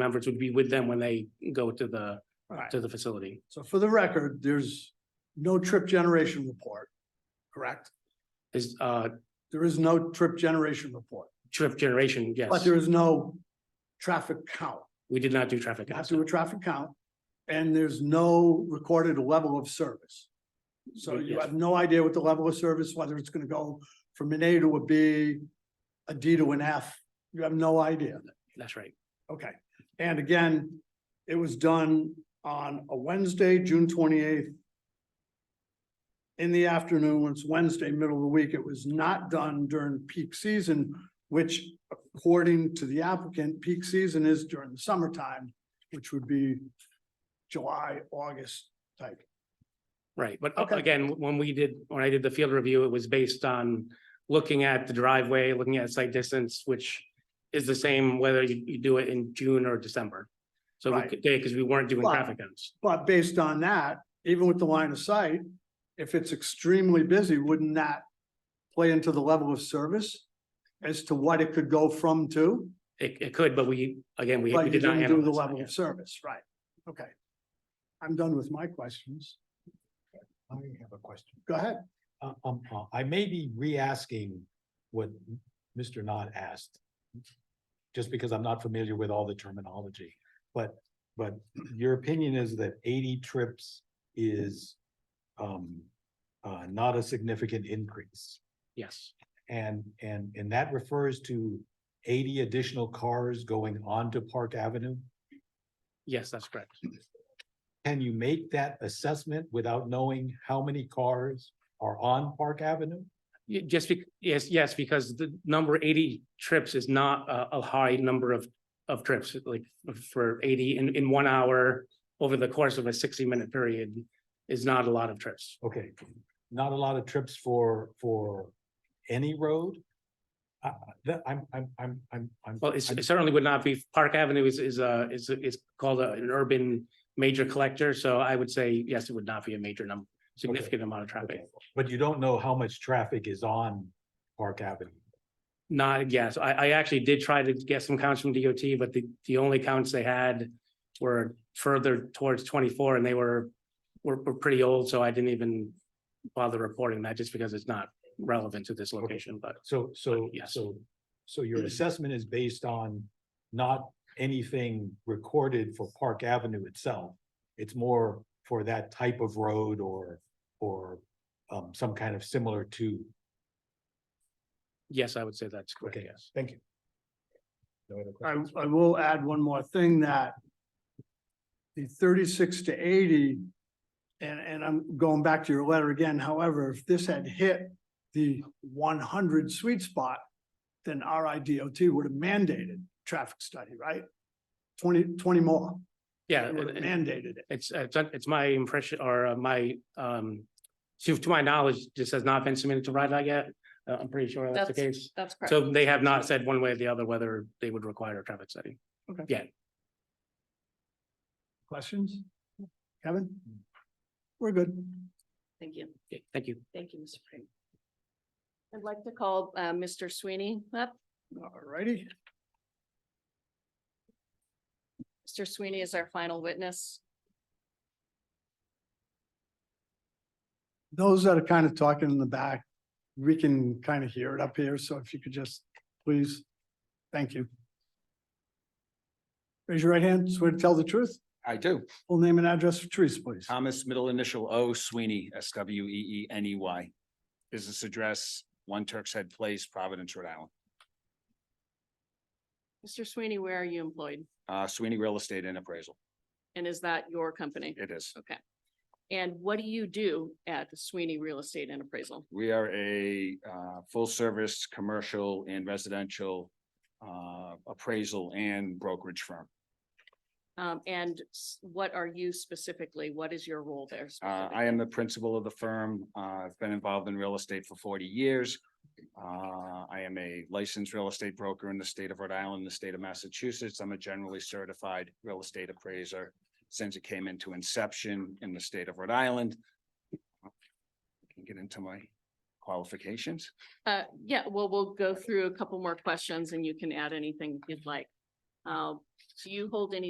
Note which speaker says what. Speaker 1: members would be with them when they go to the,
Speaker 2: All right.
Speaker 1: to the facility.
Speaker 2: So for the record, there's no trip generation report, correct?
Speaker 1: Is, uh,
Speaker 2: There is no trip generation report,
Speaker 1: trip generation,
Speaker 2: but
Speaker 1: yes.
Speaker 2: there is no traffic count.
Speaker 1: We did not do traffic
Speaker 2: You have
Speaker 1: counts.
Speaker 2: to do a traffic count, and there's no recorded level of service. So you
Speaker 1: Yes.
Speaker 2: have no idea what the level of service, whether it's gonna go from an A to a B, a D to an F, you have no idea.
Speaker 1: That's right.
Speaker 2: Okay, and again, it was done on a Wednesday, June twenty-eighth. In the afternoon, when it's Wednesday, middle of the week, it was not done during peak season, which according to the applicant, peak season is during the summertime, which would be July, August type.
Speaker 1: Right, but uh,
Speaker 2: Okay.
Speaker 1: again, when we did, when I did the field review, it was based on looking at the driveway, looking at site distance, which is the same whether you, you do it in June or December. So we
Speaker 2: Right.
Speaker 1: could, because we weren't doing
Speaker 2: But-
Speaker 1: traffic counts.
Speaker 2: But based on that, even with the line of sight, if it's extremely busy, wouldn't that play into the level of service? As to what it could go from to?
Speaker 1: It, it could, but we, again, we we
Speaker 2: But you
Speaker 1: did not
Speaker 2: didn't do the
Speaker 1: analyze that
Speaker 2: level
Speaker 1: yet.
Speaker 2: of service, right? Okay. I'm done with my questions.
Speaker 3: I have a question.
Speaker 2: Go ahead.
Speaker 3: Uh, Um, uh, I may be re-asking what Mr. Knott asked. Just because I'm not familiar with all the terminology, but, but your opinion is that eighty trips is um, uh, not a significant increase.
Speaker 1: Yes,
Speaker 3: And, and, and that refers to eighty additional cars going onto Park Avenue?
Speaker 1: yes, that's correct.
Speaker 3: Can you make that assessment without knowing how many cars are on Park Avenue?
Speaker 1: Y- Just be, yes, yes, because the number eighty trips is not a, a high number of, of trips, like for eighty in, in one hour over the course of a sixty-minute period is not a lot of trips.
Speaker 3: Okay, not a lot of trips for, for any road? Uh, that, I'm, I'm, I'm, I'm, I'm.
Speaker 1: Well, it's-
Speaker 3: I'm-
Speaker 1: it certainly would not be, Park Avenue is, is a, is, is called a- an urban major collector, so I would say, yes, it would not be a major number, significant amount of traffic.
Speaker 3: okay. But you don't know how much traffic is on Park Avenue.
Speaker 1: Not, yes, I, I actually did try to get some counts from DOT, but the, the only counts they had were further towards twenty-four and they were, were, were pretty old, so I didn't even bother reporting that just because it's not relevant to this location, but
Speaker 3: So,
Speaker 1: Uh,
Speaker 3: so,
Speaker 1: yes. Mm.
Speaker 3: so, so your assessment is based on not anything recorded for Park Avenue itself. It's more for that type of road or, or, um, some kind of similar to.
Speaker 1: yes, I would say that's correct,
Speaker 3: Okay.
Speaker 1: yes.
Speaker 3: Thank you. No other
Speaker 2: I,
Speaker 3: questions?
Speaker 2: I will add one more thing that the thirty-six to eighty, and, and I'm going back to your letter again, however, if this had hit the one hundred sweet spot, then RIDOT would have mandated traffic study, right? Twenty, twenty more,
Speaker 1: Yeah,
Speaker 2: They would have
Speaker 1: and-
Speaker 2: mandated it.
Speaker 1: It's, it's, it's my impression or uh, my, um, to, to my knowledge, this has not been submitted to RIDOT yet. Uh, I'm pretty sure that's the
Speaker 4: That's-
Speaker 1: case.
Speaker 4: That's correct.
Speaker 1: So they have not said one way or the other whether they would require a traffic study.
Speaker 2: Questions? Kevin? We're good.
Speaker 4: Thank you.
Speaker 1: Okay, Thank you.
Speaker 4: Thank you, Mr. Frame. I'd like to call uh, Mr. Sweeney up.
Speaker 2: All righty.
Speaker 4: Mr. Sweeney is our final witness.
Speaker 2: those that are kind of talking in the back, we can kind of hear it up here, so if you could just, please, thank you. Raise your right hand, swear to tell the truth,
Speaker 5: I do.
Speaker 2: full name and address for Teresa, please.
Speaker 5: Thomas, middle initial O, Sweeney, S W E E N E Y. Business address, One Turk's Head Place, Providence, Rhode Island.
Speaker 4: Mr. Sweeney, where are you employed?
Speaker 5: Uh, Sweeney Real Estate and Appraisal.
Speaker 4: And is that your company?
Speaker 5: It is.
Speaker 4: Okay. And what do you do at Sweeney Real Estate and Appraisal?
Speaker 5: We are a uh, full-service, commercial and residential uh, appraisal and brokerage firm.
Speaker 4: Um, and s- what are you specifically? What is your role there?
Speaker 5: Uh, I am the principal of the firm. Uh, I've been involved in real estate for forty years. Uh, I am a licensed real estate broker in the state of Rhode Island, the state of Massachusetts. I'm a generally certified real estate appraiser since it came into inception in the state of Rhode Island. I Can get into my qualifications.
Speaker 4: Uh, yeah, well, we'll go through a couple more questions and you can add anything you'd like. Um, do you hold any